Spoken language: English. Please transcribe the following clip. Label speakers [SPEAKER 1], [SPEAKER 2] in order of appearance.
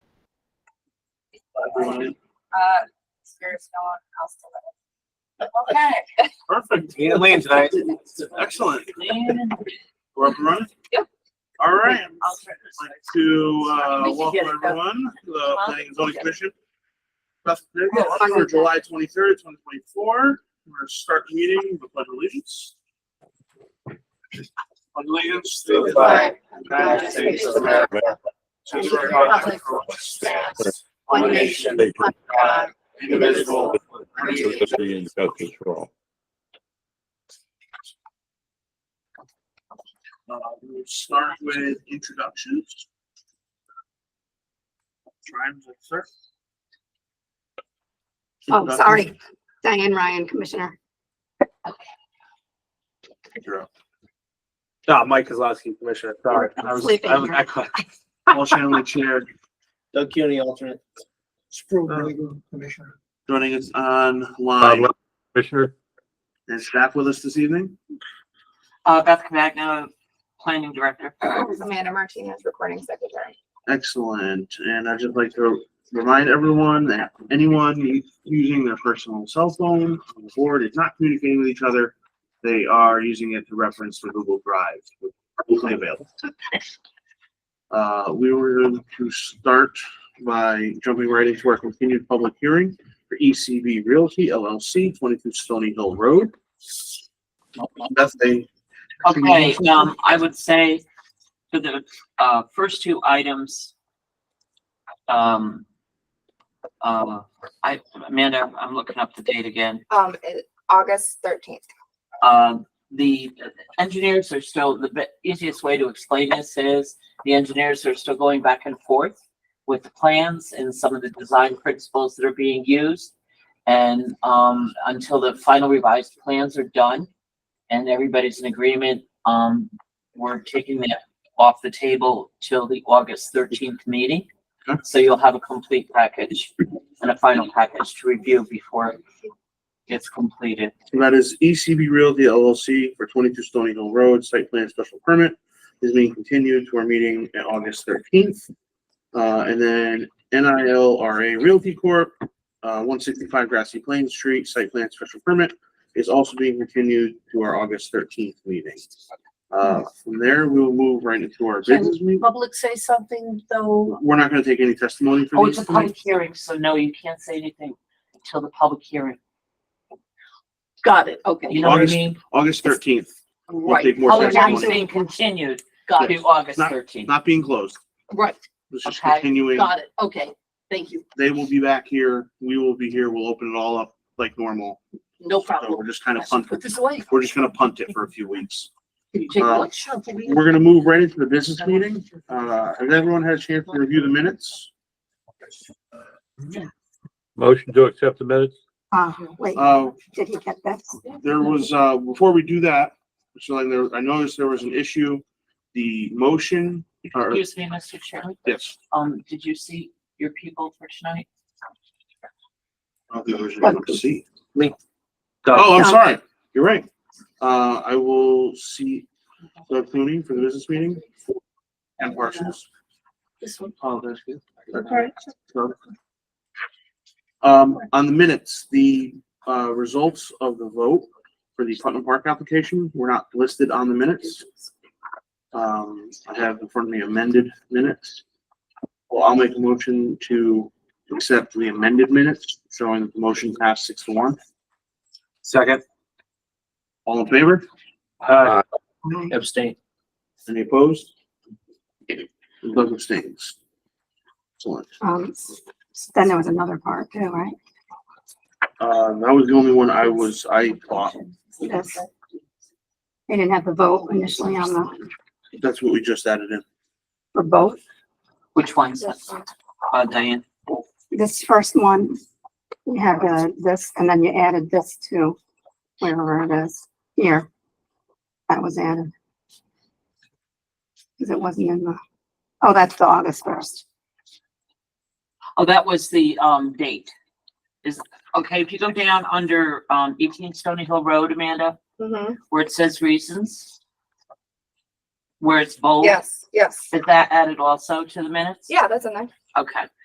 [SPEAKER 1] everyone.
[SPEAKER 2] Uh, there's no one else to live. Okay.
[SPEAKER 1] Perfect.
[SPEAKER 3] Need a lane tonight.
[SPEAKER 1] Excellent. We're up and running?
[SPEAKER 2] Yep.
[SPEAKER 1] All right.
[SPEAKER 2] I'll try
[SPEAKER 1] I'd like to, uh, welcome everyone, to the planning and zoning commission. Best business for July twenty-third, twenty twenty-four. We're gonna start the meeting with the pledge of allegiance. Allegiance to the flag, of the United States of America. to the republic for which it stands,
[SPEAKER 4] One nation, under God,
[SPEAKER 1] indivisible, with liberty and
[SPEAKER 4] liberty and justice for all.
[SPEAKER 1] Uh, we'll start with introductions. Ryan, sir.
[SPEAKER 5] Oh, sorry. Diane Ryan, Commissioner.
[SPEAKER 1] Introductions.
[SPEAKER 3] Ah, Mike Kozlowski, Commissioner. Sorry. I was,
[SPEAKER 5] Sleeping.
[SPEAKER 3] I was echoing.
[SPEAKER 1] You're up. Paul Shanley, chair,
[SPEAKER 3] Doug Cuny, alternate.
[SPEAKER 1] joining us online.
[SPEAKER 4] Uh, Commissioner?
[SPEAKER 1] Is staff with us this evening?
[SPEAKER 6] Uh, Beth Cavagna, planning director.
[SPEAKER 5] Amanda Martinez, Recording Secretary.
[SPEAKER 1] Excellent. And I'd just like to remind everyone that anyone using their personal cell phone on the board is not communicating with each other. They are using it to reference the Google Drive, which is publicly available. Uh, we were going to start by jumping right into our continued public hearing for ECB Realty LLC, twenty-two Stony Hill Road. That's a
[SPEAKER 6] Okay, um, I would say for the, uh, first two items, um, uh, I, Amanda, I'm looking up the date again.
[SPEAKER 2] Um, it- August thirteenth.
[SPEAKER 6] Um, the engineers are still, the be- easiest way to explain this is the engineers are still going back and forth with the plans and some of the design principles that are being used. And, um, until the final revised plans are done and everybody's in agreement, um, we're taking that off the table till the August thirteenth meeting.
[SPEAKER 1] Okay.
[SPEAKER 6] So you'll have a complete package and a final package to review before it gets completed.
[SPEAKER 1] So that is ECB Realty LLC for twenty-two Stony Hill Road, site plan special permit is being continued to our meeting at August thirteenth. Uh, and then NILRA Realty Corp., uh, one sixty-five Grassy Plains Street, site plan special permit is also being continued to our August thirteenth meeting. Uh, from there, we'll move right into our business meeting.
[SPEAKER 7] public say something though?
[SPEAKER 1] We're not gonna take any testimony
[SPEAKER 6] Oh,
[SPEAKER 1] for
[SPEAKER 6] it's
[SPEAKER 1] these.
[SPEAKER 6] a public hearing, so no, you can't say anything until the public hearing.
[SPEAKER 7] Got it,
[SPEAKER 6] You
[SPEAKER 7] okay.
[SPEAKER 6] know what I
[SPEAKER 1] August-
[SPEAKER 6] mean?
[SPEAKER 1] August thirteenth, we'll
[SPEAKER 7] Right,
[SPEAKER 1] take more
[SPEAKER 6] Public hearing's
[SPEAKER 1] testimony,
[SPEAKER 6] being continued
[SPEAKER 7] got
[SPEAKER 6] to
[SPEAKER 7] it,
[SPEAKER 6] August
[SPEAKER 1] Not-
[SPEAKER 6] thirteenth.
[SPEAKER 1] not being closed.
[SPEAKER 7] right,
[SPEAKER 1] It's just
[SPEAKER 6] Okay.
[SPEAKER 1] continuing.
[SPEAKER 7] got it, okay, thank you,
[SPEAKER 1] they will be back here, we will be here, we'll open it all up like normal.
[SPEAKER 7] no
[SPEAKER 1] So
[SPEAKER 7] problem.
[SPEAKER 1] we're just kind
[SPEAKER 7] I
[SPEAKER 1] of
[SPEAKER 7] should
[SPEAKER 1] punting,
[SPEAKER 7] put this away.
[SPEAKER 1] we're just gonna punt it for a few weeks.
[SPEAKER 7] Can you take
[SPEAKER 1] uh,
[SPEAKER 7] one shot for me?
[SPEAKER 1] We're gonna move right into the business meeting. Uh, has everyone had a chance to review the minutes?
[SPEAKER 4] Motion to accept the minutes?
[SPEAKER 5] Uh, wait,
[SPEAKER 1] Uh,
[SPEAKER 5] did he get that?
[SPEAKER 1] there was, uh, before we do that, so like there, I noticed there was an issue. The motion, or,
[SPEAKER 6] Excuse me, Mr. Chairman,
[SPEAKER 1] yes.
[SPEAKER 6] um, did you see your people for tonight?
[SPEAKER 1] I don't think there was anyone to see.
[SPEAKER 3] Link.
[SPEAKER 1] Oh, I'm sorry, you're right. Uh, I will see Doug Clooney for the business meeting. And Parsons.
[SPEAKER 7] This one.
[SPEAKER 1] Oh, that's good.
[SPEAKER 7] Okay.
[SPEAKER 1] Um, on the minutes, the, uh, results of the vote for the Putnam Park application were not listed on the minutes. Um, I have in front of me amended minutes. Well, I'll make a motion to accept the amended minutes, showing that the motion passed six to one.
[SPEAKER 3] Second.
[SPEAKER 1] All in favor?
[SPEAKER 3] Uh, abstain.
[SPEAKER 1] Any opposed? Doug abstains. Excellent.
[SPEAKER 5] Um, then there was another part too, right?
[SPEAKER 1] Uh, that was the only one I was, I thought,
[SPEAKER 5] Yes. They didn't have the vote initially on the,
[SPEAKER 1] that's what we just added in.
[SPEAKER 5] for both.
[SPEAKER 6] Which ones? Uh, Diane,
[SPEAKER 5] This first one, you have uh, this, and then you added this to wherever it is here. That was added. Because it wasn't in the, oh, that's the August first.
[SPEAKER 6] oh, that was the, um, date. Is, okay, if you go down under, um, eighteen Stony Hill Road, Amanda,
[SPEAKER 2] Mm-hmm.
[SPEAKER 6] where it says reasons, where it's bold,
[SPEAKER 2] Yes, yes.
[SPEAKER 6] is that added also to the minutes?
[SPEAKER 2] Yeah, that's in there.
[SPEAKER 6] Okay.